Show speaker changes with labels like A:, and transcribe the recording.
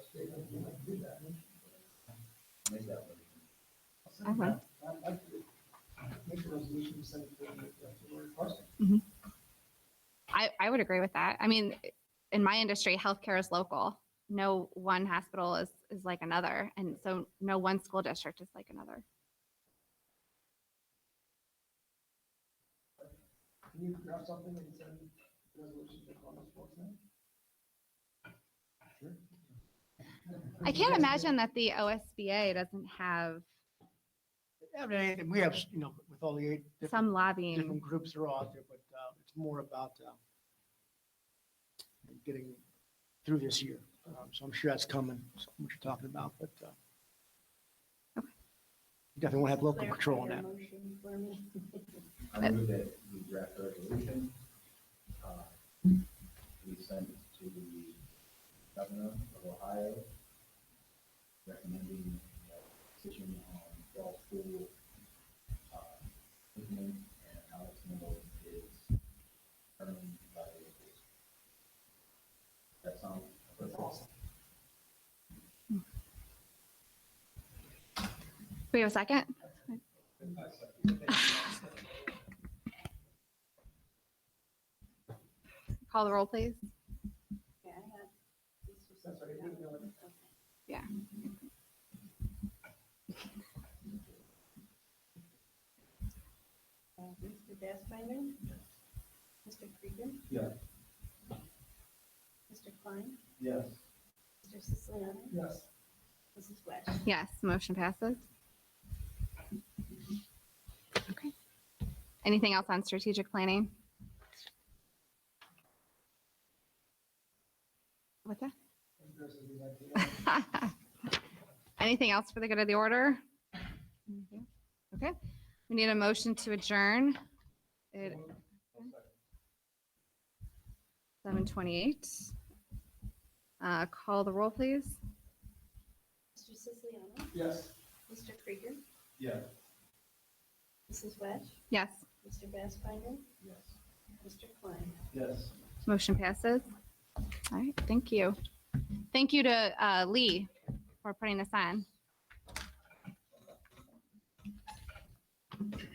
A: make that one.
B: I
C: Mm-hmm.
B: would.
D: I'd like to make a resolution to send it to the Lord Parson.
B: I, I would agree with that. I mean, in my industry, healthcare is local. No one hospital is, is like another. And so no one school district is like another.
D: Can you grab something and send the resolution to Columbus folks now?
C: Mm-hmm.
B: I can't imagine that the OSBA doesn't have
C: I mean, and we have, you know, with all the eight different,
B: some lobbying.
C: different groups that are out there, but uh, it's more about uh, getting through this year. Um, So I'm sure that's coming, so what you're talking about, but uh, you definitely want to have local control on that.
E: Motion for me.
A: I move that we draft a resolution. uh, We send it to the governor of Ohio recommending a decision on fall school uh, opening and how it's handled is determined by the locals. That sounds.
D: That's awesome.
B: We have a second? Call the roll, please.
E: Okay, I have- this was-
D: That's right, we know it.
E: Okay.
B: Yeah.
E: Uh, Mr. Bassfider? Mr. Krieger?
A: Yeah.
E: Mr. Klein?
A: Yes.
E: Mr. Siciliano?
D: Yes,
E: Mrs. West?
B: Yes, motion passes. Okay. Anything else on strategic planning? What's that?
D: and there's a good idea.
B: Anything else for the good of the order? Okay, we need a motion to adjourn. It, seven twenty-eight. Uh, call the roll, please.
E: Mr. Siciliano?
D: Yes.
E: Mr. Krieger?
A: Yeah.
E: Mrs. West?
B: Yes,
E: Mr. Bassfider?
A: Yes.
E: Mr. Klein?
A: Yes.
B: motion passes. All right, thank you. Thank you to, uh, Lee for putting this on.